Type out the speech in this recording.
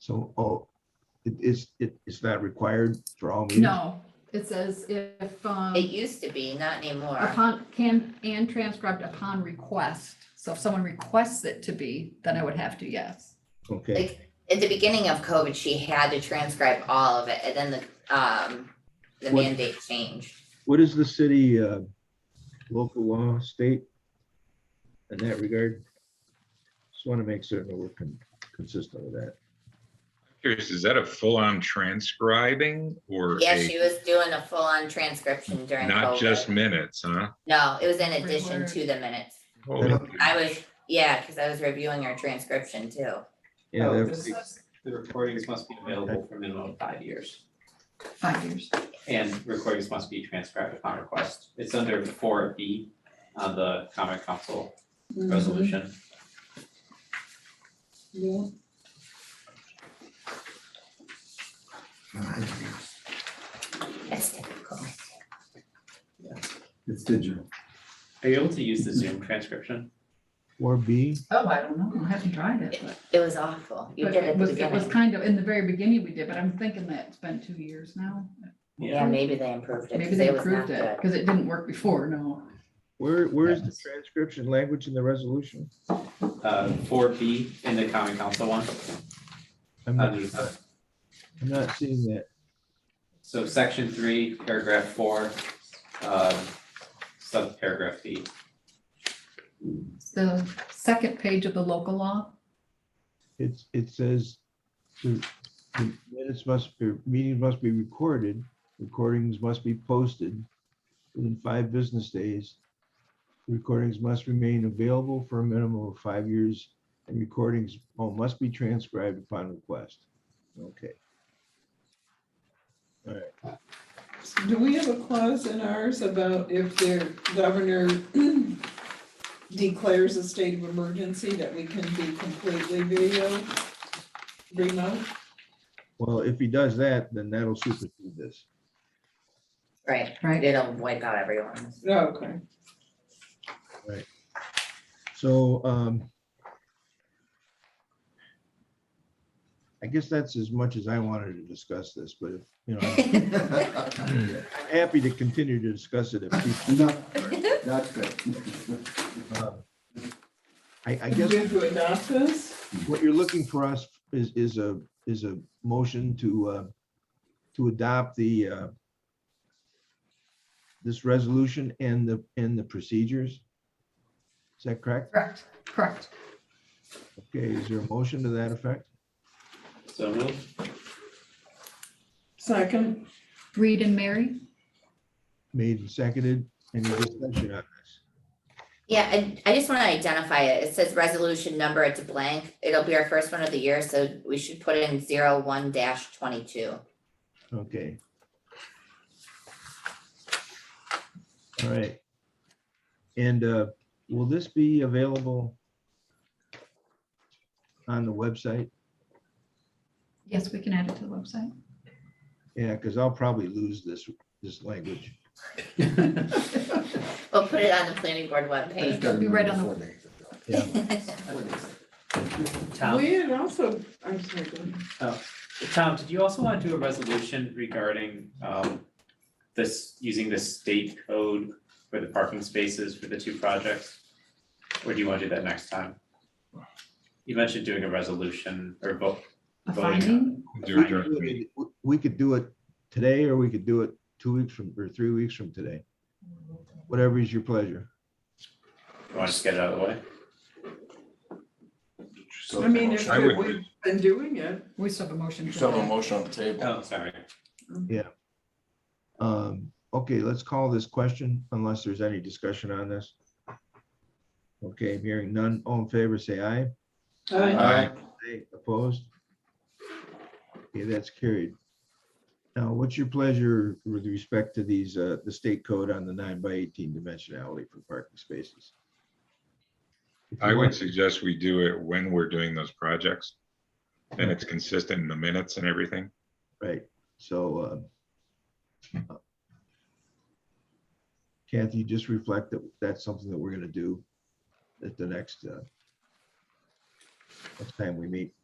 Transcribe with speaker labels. Speaker 1: So, oh, it is, it is that required for all meetings?
Speaker 2: No, it says if, um,
Speaker 3: It used to be, not anymore.
Speaker 2: upon, can, and transcribed upon request. So if someone requests it to be, then I would have to, yes.
Speaker 1: Okay,
Speaker 3: At the beginning of COVID, she had to transcribe all of it and then the, um, the
Speaker 1: What-
Speaker 3: mandate changed.
Speaker 1: what is the city, uh, local law, state? In that regard? Just want to make certain we're con- consistent with that.
Speaker 4: Curious, is that a full-on transcribing or
Speaker 3: Yeah,
Speaker 4: a-
Speaker 3: she was doing a full-on transcription during
Speaker 4: not just
Speaker 3: COVID.
Speaker 4: minutes, huh?
Speaker 3: No, it was in addition
Speaker 2: Word.
Speaker 3: to the minutes.
Speaker 4: Holy
Speaker 1: Yeah.
Speaker 3: I was, yeah, because I was reviewing her transcription too.
Speaker 1: Yeah,
Speaker 5: Oh,
Speaker 1: that-
Speaker 5: this says The recordings must be available for a minimum of five years,
Speaker 2: Five years.
Speaker 5: and recordings must be transcribed upon request. It's under four B on the common council resolution.
Speaker 3: That's typical.
Speaker 6: It's digital.
Speaker 5: Are you able to use the Zoom transcription?
Speaker 1: or B,
Speaker 2: Oh, I don't know. I haven't tried it, but.
Speaker 3: It was awful. You
Speaker 2: but
Speaker 3: did it at the
Speaker 2: was- It was
Speaker 3: beginning.
Speaker 2: kind of, in the very beginning we did, but I'm thinking that it's been two years now.
Speaker 3: Yeah, maybe they improved it
Speaker 2: Maybe
Speaker 3: because
Speaker 2: they
Speaker 3: it was not
Speaker 2: improved it,
Speaker 3: good.
Speaker 2: because it didn't work before, no.
Speaker 1: where, where's the transcription language in the resolution?
Speaker 5: Uh, four B in the common council one.
Speaker 1: I'm not,
Speaker 5: under the-
Speaker 1: I'm not seeing that.
Speaker 5: So section three, paragraph four, uh, subparagraph B.
Speaker 2: It's The second page of the local law,
Speaker 1: It's, it says the the minutes must, be meetings must be recorded, recordings must be posted within five business days. Recordings must remain available for a minimum of five years and recordings oh, must be transcribed upon request. Okay,
Speaker 7: Do we have a clause in ours about if the governor declares a state of emergency that we can be completely video remote?
Speaker 1: well, if he does that, then that'll supersede this.
Speaker 3: Right,
Speaker 2: right?
Speaker 3: it'll wipe out everyone.
Speaker 7: Oh, Okay.
Speaker 1: So um I guess that's as much as I wanted to discuss this, but if, you know. I'm- I'm happy to continue to discuss it if people,
Speaker 6: No, that's good.
Speaker 1: uh, I, I
Speaker 7: Do we
Speaker 1: guess
Speaker 7: have to adopt this?
Speaker 1: what you're looking for us is, is a, is a motion to, uh, to adopt the, uh, this resolution and the, and the procedures. Is that correct?
Speaker 2: Correct, correct.
Speaker 1: Okay, is there a motion to that effect?
Speaker 5: So move.
Speaker 7: Second,
Speaker 2: Reed and Mary?
Speaker 1: Made and seconded, any discussion on this?
Speaker 3: Yeah, and I just want to identify it. It says resolution number, it's blank. It'll be our first one of the year, so we should put in zero one dash twenty-two.
Speaker 1: Okay. All right. And uh, will this be available on the website?
Speaker 2: Yes, we can add it to the website.
Speaker 1: Yeah, because I'll probably lose this, this language.
Speaker 3: We'll put it on the planning board webpage.
Speaker 2: Be right on the-
Speaker 1: Yeah.
Speaker 5: Tom,
Speaker 7: we had also, I'm sorry, go ahead.
Speaker 5: Tom, did you also want to do a resolution regarding um this, using the state code for the parking spaces for the two projects? Or do you want to do that next time? You mentioned doing a resolution or vote,
Speaker 2: A
Speaker 5: Voting on
Speaker 2: finding?
Speaker 1: We could do it- we could do it today or we could do it two weeks from, or three weeks from today. Whatever is your pleasure.
Speaker 5: you want to just get it out of the way?
Speaker 7: I mean, if
Speaker 4: I would-
Speaker 7: we've been doing it,
Speaker 2: We still have a motion.
Speaker 8: You
Speaker 2: to
Speaker 8: still have a
Speaker 2: that.
Speaker 8: motion on the table.
Speaker 5: Oh, sorry.
Speaker 1: Um, Okay, let's call this question unless there's any discussion on this. Okay, hearing none, all in favor, say aye.
Speaker 7: uh,
Speaker 8: Aye.
Speaker 1: Aye, Opposed? Okay, that's carried. Now, what's your pleasure with respect to these, uh, the state code on the nine by eighteen dimensionality for parking spaces? If you
Speaker 4: I would
Speaker 1: want-
Speaker 4: suggest we do it when we're doing those projects. And it's consistent in the minutes and everything.
Speaker 1: Right, so, uh, Kathy, just reflect that that's something that we're gonna do at the next, uh, next time we meet.